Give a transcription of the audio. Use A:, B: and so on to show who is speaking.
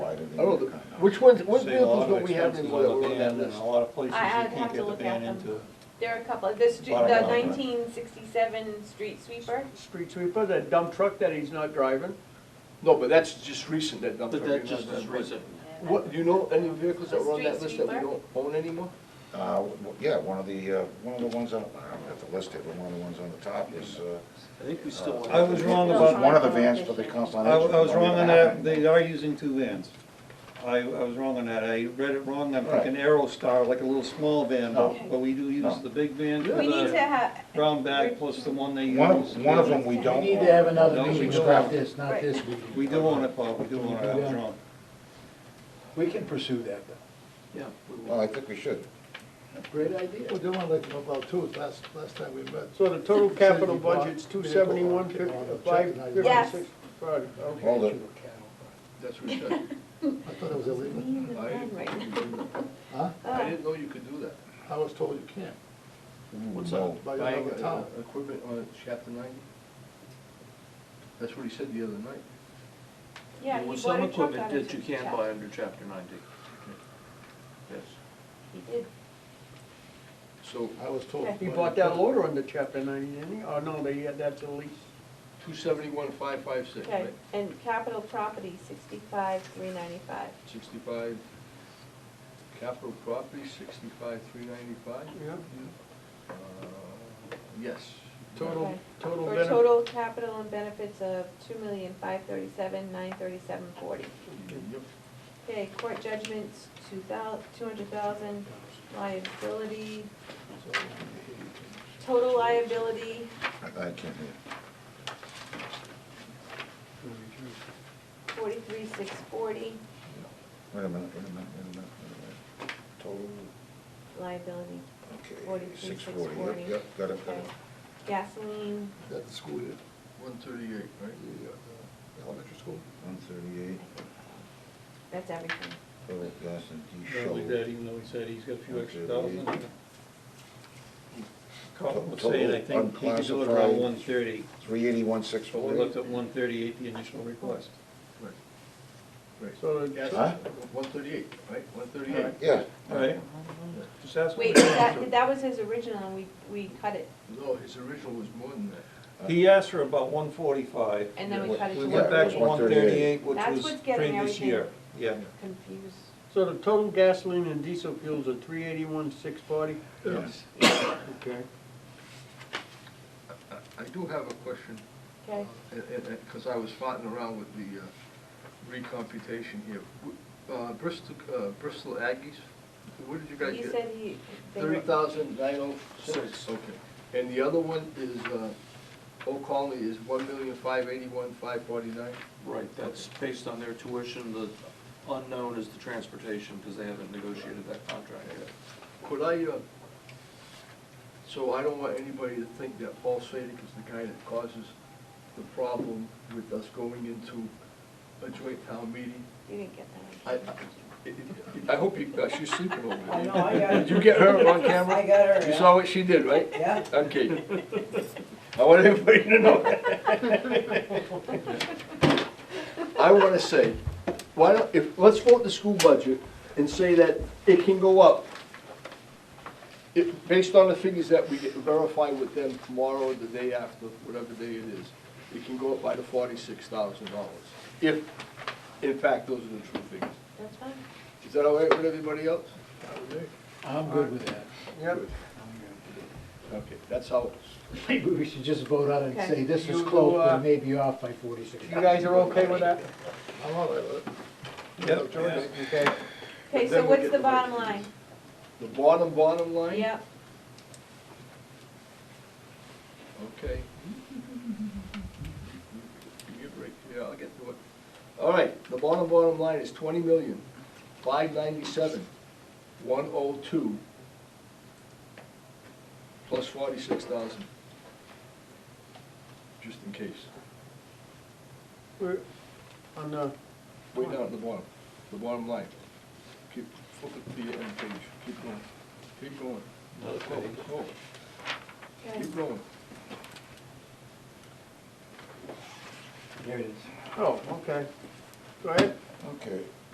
A: I
B: Oh,
A: don't know, the- which ones, what vehicles don't we have anymore that were on that list?
B: A lot of places
C: I- I'd
B: you
C: have
B: can't
C: to
B: get the
C: look
B: van
C: at them.
B: into.
C: There are a couple, this, the
B: Bottom line, right?
C: nineteen sixty-seven street sweeper,
D: street sweeper, that dump truck that he's not driving.
A: No, but that's just recent, that dump
E: But
A: truck.
E: that
A: you're
E: just
A: not-
E: is recent.
A: What, do you know any vehicles that were on that
C: Street
A: list that we
C: sweeper?
A: don't own anymore?
F: Uh, w- w- yeah, one of the, uh, one of the ones on, I don't have to list it, but one of the ones on the top is, uh.
E: I think we still
F: uh,
E: want.
B: I was wrong
F: it
B: about-
F: One of the vans for the council
B: I
F: on
B: I
F: aging.
B: was
F: Don't
B: wrong
F: even
B: on
F: have
B: that,
F: it.
B: they are using two vans. I, I was wrong on that, I read it wrong, I'm thinking Aerostar, like a little small van,
F: No.
B: but but we do
F: No.
B: use the big van for
C: we need to
B: the
C: have,
B: brown bag plus the one they use.
F: One of, one of them we don't.
G: We need to have
F: own.
G: another
B: No, we
G: meeting
B: don't.
G: about this, not
C: Right.
G: this meeting.
B: We do own it, Bob, we do own it, I was wrong.
G: We can pursue that, though.
E: Yeah. we will.
F: Well, I think we should.
G: Great idea.
H: Well, Dylan, like, about two, last, last time we met.
D: So the total
H: Said
D: capital
H: you bought
D: budget's two
H: vehicle on-
D: seventy-one,
H: on
D: fifty,
H: a check
D: five,
H: and I-
C: Yes.
D: fifty-six, right, okay.
F: Hold it.
A: That's recent.
H: I thought it was illegal. Huh?
C: Uh.
A: I didn't know you could do that.
H: I was told you can't.
E: What's
F: No.
H: By
A: Buying
H: another
A: uh,
H: town.
A: equipment on chapter ninety? That's what he said the other night.
C: yeah,
E: There
C: he
E: was
C: bought
E: some
C: a truck out
E: equipment
C: of
E: that you can't buy under chapter ninety. Yes.
C: He did,
A: So,
H: I was told.
D: He bought that loader under chapter ninety, didn't he? Oh, no, they had that to lease.
A: two seventy-one, five, five, six,
C: okay,
A: right?
C: and capital property, sixty-five, three ninety-five.
A: Sixty-five, capital property, sixty-five, three ninety-five? Uh,
D: Yeah.
A: Yes.
D: Total,
C: Okay.
D: total
C: For
D: benefit,
C: total capital and benefits of two million, five thirty-seven, nine thirty-seven, forty.
A: Yep.
C: Okay, court judgments, two thou, two hundred thousand, liability, total liability,
F: I I can't hear.
C: forty-three, six forty,
F: Wait a minute, wait a minute, wait a minute, wait a minute. Total,
C: liability,
F: okay,
C: Forty-three,
F: six forty, yep,
C: 640.
F: yep, got it, got
C: okay.
F: it.
C: Gasoline,
H: That school, did.
A: One thirty-eight, right?
H: the, uh, the elementary school.
F: One thirty-eight,
C: that's everything.
F: total gas and
B: No, we
F: diesel.
B: did, even though he said he's got a few extra
F: Okay.
B: thousand. Carl was
F: Total
B: saying, I think he could do it around
F: unclassified.
B: one thirty,
F: Three eighty-one, six
B: but we
F: forty.
B: looked at one thirty-eight, the initial request.
D: so the
F: Huh?
A: One thirty-eight, right? One thirty-eight.
F: Yeah.
B: Right? Just ask.
C: Wait, that, that was his original, and we, we cut it,
A: No, his original was more than that.
B: He asked for about one forty-five.
C: and then we cut it
B: We
C: to
B: went back to one
F: 138,
B: thirty-eight, which
C: That's
B: was
C: what's getting
B: previous
C: everything.
B: year. Yeah.
C: confused.
D: So the total gasoline and diesel fuels are three eighty-one, six forty?
F: Yes.
D: Okay.
A: I- I do have a question, Uh,
C: Okay,
A: because I was farting around with the uh, recomputation here. W- uh, Bristol, uh, Bristol Aggies, where did you guys
C: he
A: get?
C: said he, they
A: Thirty
C: were,
A: thousand nine oh six. Okay. And the other one is, uh, Oak Colony is one million five eighty-one five forty-nine?
E: Right, that's based on their tuition, the unknown is the transportation, because they haven't negotiated that contract yet.
A: Could I, uh, so I don't want anybody to think that Paul Sadik is the guy that causes the problem with us going into a joint town meeting.
C: you didn't get
A: I, I,
C: that.
A: I hope you, uh, she's sleeping over there.
I: I know, Oh, I got
A: Did you get her on camera?
I: I got her,
A: You
I: yeah.
A: saw what she did, right?
I: Yeah.
A: Okay. I want everybody to know. I wanna say, why don't, if, let's vote the school budget and say that it can go up. It, based on the figures that we get- verify with them tomorrow or the day after, whatever day it is, it can go up by the forty-six thousand dollars. If, in fact, those are the true figures.
C: That's fine.
A: Is that all right with everybody else?
G: I'm good with that.
D: Yep.
A: Okay, that's how,
G: Maybe we should just vote on it and
C: Okay.
G: say this
D: You
G: is
D: do,
G: close,
D: uh,
G: but maybe off by forty-six.
D: You guys are okay with that?
H: I'm all right with it.
B: Yep.
D: Okay.
C: Okay,
A: then
C: so
A: we
C: what's
A: get
C: the
A: the right
C: bottom line?
A: the bottom, bottom line?
C: Yep,
A: Okay. Give me a break, yeah, I'll get to it. All right, the bottom, bottom line is twenty million, five ninety-seven, one oh two, plus forty-six thousand, just in case.
D: We're on the,
A: Way down at the bottom, the bottom line. Keep, flip it to the end page, keep going, keep going. Go, go,
C: okay,
A: Keep going.
G: There it is.
D: oh, okay. Go ahead.
F: Okay,